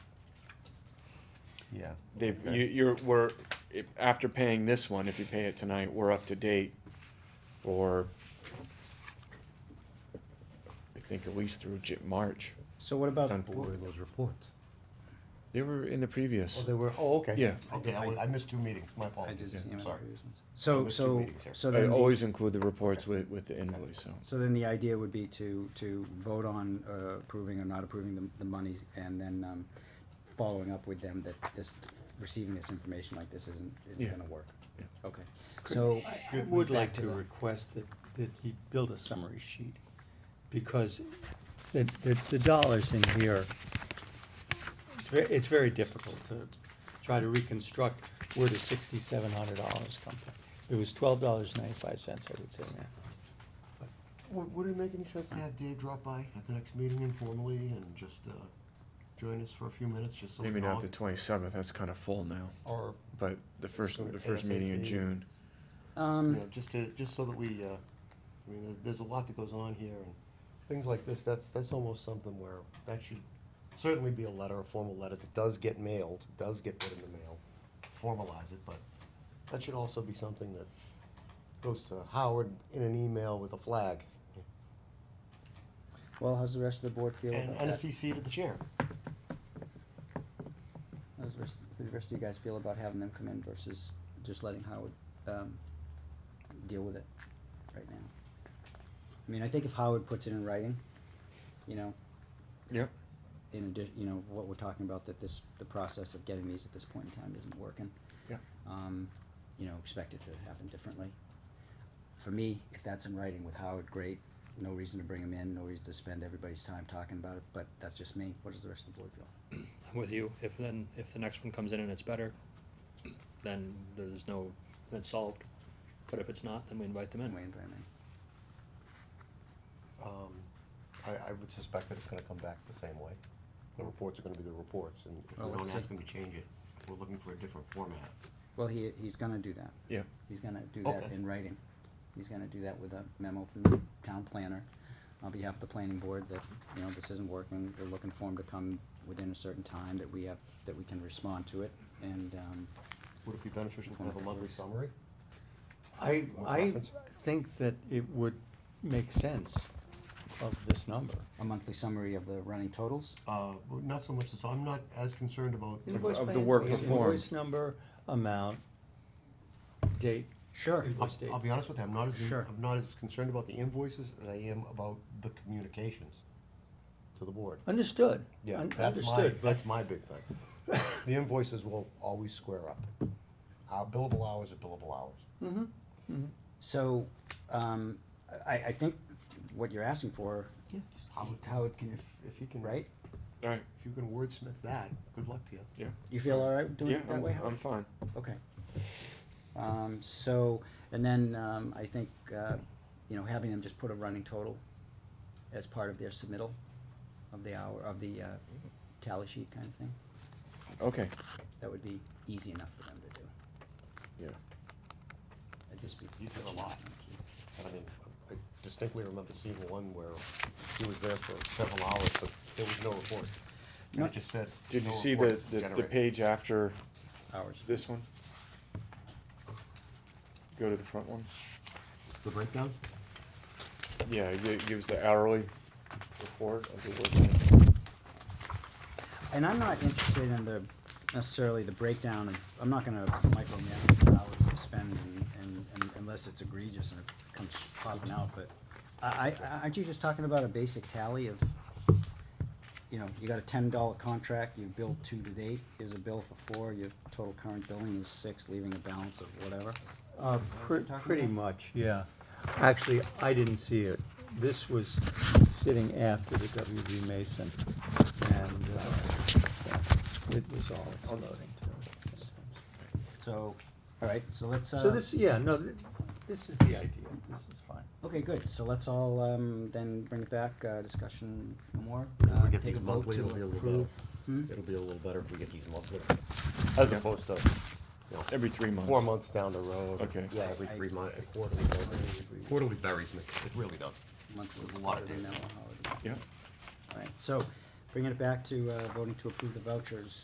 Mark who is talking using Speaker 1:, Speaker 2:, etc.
Speaker 1: Yeah.
Speaker 2: They've,
Speaker 1: Okay.
Speaker 2: you, you're, we're, if- after paying this one, if you pay it tonight, we're up to date for, I think at least through J- March.
Speaker 3: So what about,
Speaker 2: Done.
Speaker 3: wh-
Speaker 4: those reports?
Speaker 2: They were in the
Speaker 1: Oh,
Speaker 2: previous,
Speaker 1: they were, oh, okay.
Speaker 2: Yeah.
Speaker 1: Okay, I was- I missed two meetings, my
Speaker 4: I
Speaker 1: apologies,
Speaker 4: did see them in the
Speaker 1: sorry.
Speaker 4: previous ones.
Speaker 1: There
Speaker 3: so,
Speaker 1: was two
Speaker 3: so,
Speaker 1: meetings here.
Speaker 3: so
Speaker 2: I
Speaker 3: then, the-
Speaker 2: always include the reports with, with the invoice, so.
Speaker 3: so then the idea would be to, to vote on uh, approving or not approving the, the monies and then, um, following up with them that this, receiving this information like this isn't, isn't
Speaker 2: Yeah.
Speaker 3: gonna work.
Speaker 2: Yeah.
Speaker 3: Okay, so,
Speaker 5: I
Speaker 1: Good,
Speaker 5: would
Speaker 1: back
Speaker 5: like
Speaker 1: to
Speaker 5: to
Speaker 1: that.
Speaker 5: request that, that he build a summary sheet, because the, the, the dollars in here, it's very, it's very difficult to try to reconstruct where the sixty-seven hundred dollars come from. It was twelve dollars ninety-five cents, I would say, man.
Speaker 1: Would, would it make any sense to have Dave drop by at the next meeting informally and just, uh, join us for a few minutes, just so we
Speaker 2: Maybe
Speaker 1: can all?
Speaker 2: not the twenty-seventh, that's kind of full now,
Speaker 1: Or,
Speaker 2: but the first,
Speaker 1: So
Speaker 2: the first meeting in
Speaker 1: ASAP.
Speaker 2: June.
Speaker 1: you
Speaker 3: um,
Speaker 1: know, just to, just so that we, uh, I mean, there- there's a lot that goes on here and things like this, that's, that's almost something where that should certainly be a letter, a formal letter that does get mailed, does get put in the mail, formalize it, but that should also be something that goes to Howard in an email with a flag
Speaker 3: well, how's the rest of the board feel
Speaker 1: and,
Speaker 3: about
Speaker 1: and a
Speaker 3: that?
Speaker 1: CC to the chair.
Speaker 3: How's the rest, the rest of you guys feel about having them come in versus just letting Howard, um, deal with it right now? I mean, I think if Howard puts it in writing, you know,
Speaker 2: Yep.
Speaker 3: in addition, you know, what we're talking about, that this, the process of getting these at this point in time isn't working.
Speaker 2: Yeah.
Speaker 3: Um, you know, expect it to happen differently. For me, if that's in writing with Howard, great, no reason to bring him in, no reason to spend everybody's time talking about it, but that's just me, what does the rest of the board feel?
Speaker 6: I'm with you. If then, if the next one comes in and it's better, then there's no, then it's solved. But if it's not, then we invite them in.
Speaker 3: Wayne, Brian, Wayne?
Speaker 1: Um, I, I would suspect that it's gonna come back the same way. The reports are gonna be the reports, and if
Speaker 3: Well,
Speaker 1: we don't
Speaker 3: let's
Speaker 1: ask
Speaker 3: see.
Speaker 1: them to change it, we're looking for a different format.
Speaker 3: Well, he, he's gonna do that.
Speaker 2: Yeah.
Speaker 3: He's gonna do that
Speaker 1: Okay.
Speaker 3: in writing. He's gonna do that with a memo from the town planner on behalf of the planning board that, you know, this isn't working. We're looking for him to come within a certain time that we have, that we can respond to it. And, um,
Speaker 1: Would it be beneficial to have a monthly summary?
Speaker 5: I,
Speaker 1: More
Speaker 5: I
Speaker 1: conference?
Speaker 5: think that it would make sense of this number.
Speaker 3: a monthly summary of the running totals.
Speaker 1: Uh, well, not so much, so I'm not as concerned about,
Speaker 2: Invoice Of- of the by work invoice. performed.
Speaker 5: Invoice number, amount, date.
Speaker 3: Sure.
Speaker 1: I'll,
Speaker 5: Invoice date.
Speaker 1: I'll be honest with you, I'm not as,
Speaker 3: Sure.
Speaker 1: I'm not as concerned about the invoices as I am about the communications to the board.
Speaker 5: Understood.
Speaker 1: Yeah,
Speaker 5: Un-
Speaker 1: that's my,
Speaker 5: understood, but-
Speaker 1: that's my big thing. The invoices will always square up. Our billable hours are billable hours.
Speaker 5: Mm-hmm.
Speaker 3: So, um, I, I think what you're asking for, how it can,
Speaker 1: If you can.
Speaker 3: right?
Speaker 2: All right,
Speaker 1: If you can wordsmith that, good luck to you.
Speaker 2: yeah,
Speaker 3: You feel all right doing
Speaker 2: yeah,
Speaker 3: it that
Speaker 2: I'm,
Speaker 3: way? Howard?
Speaker 2: I'm fine.
Speaker 3: Okay. Um, so, and then, um, I think, uh, you know, having them just put a running total as part of their submittal of the hour, of the, uh, tally sheet kind of thing,
Speaker 2: Okay,
Speaker 3: that would be easy enough for them to do.
Speaker 2: yeah.
Speaker 3: That'd just be.
Speaker 1: He's got a lot. And I mean, I distinctly remember seeing one where he was there for several hours, but there was no report. And
Speaker 3: No.
Speaker 1: it just said.
Speaker 2: Did you
Speaker 1: no
Speaker 2: see the,
Speaker 1: report
Speaker 2: the, the
Speaker 1: generated.
Speaker 2: page after
Speaker 3: Hours.
Speaker 2: this one? Go to the front one.
Speaker 1: The breakdown?
Speaker 2: Yeah, it gives the hourly report of the work.
Speaker 3: And I'm not interested in the, necessarily the breakdown of, I'm not gonna micromanage the hours we spend and, and, and unless it's egregious and it comes popping out, but I, I, aren't you just talking about a basic tally of, you know, you got a ten dollar contract, you billed two to date, here's a bill for four, your total current billing is six, leaving a balance of whatever.
Speaker 5: Uh,
Speaker 3: you're
Speaker 5: pre-
Speaker 3: talking
Speaker 5: pretty
Speaker 3: about?
Speaker 5: much, yeah. Actually, I didn't see it. This was sitting after the WB Mason, and, uh, so it was all exploding to it.
Speaker 3: So, all right, so let's, uh.
Speaker 5: So this, yeah, no, th- this is the idea. This is fine.
Speaker 3: Okay, good, so let's all, um, then bring it back, uh, discussion no more.
Speaker 1: If
Speaker 3: Uh,
Speaker 1: we get
Speaker 3: take a
Speaker 1: these
Speaker 3: vote
Speaker 1: monthly,
Speaker 3: to
Speaker 1: it'll be a little
Speaker 3: approve.
Speaker 1: better.
Speaker 3: Hmm?
Speaker 1: It'll be a little better if we get these monthly. As
Speaker 2: Yeah.
Speaker 1: opposed to, you know,
Speaker 2: Every three months.
Speaker 1: four months down the road.
Speaker 2: Okay.
Speaker 1: Yeah, every
Speaker 3: I-
Speaker 1: three months, quarterly. Quarterly buries me, it really does.
Speaker 3: monthly
Speaker 1: There's a lot
Speaker 3: water
Speaker 1: of
Speaker 3: bill
Speaker 1: data.
Speaker 3: now, how it is.
Speaker 2: Yeah.
Speaker 3: All right, so bringing it back to uh, voting to approve the vouchers.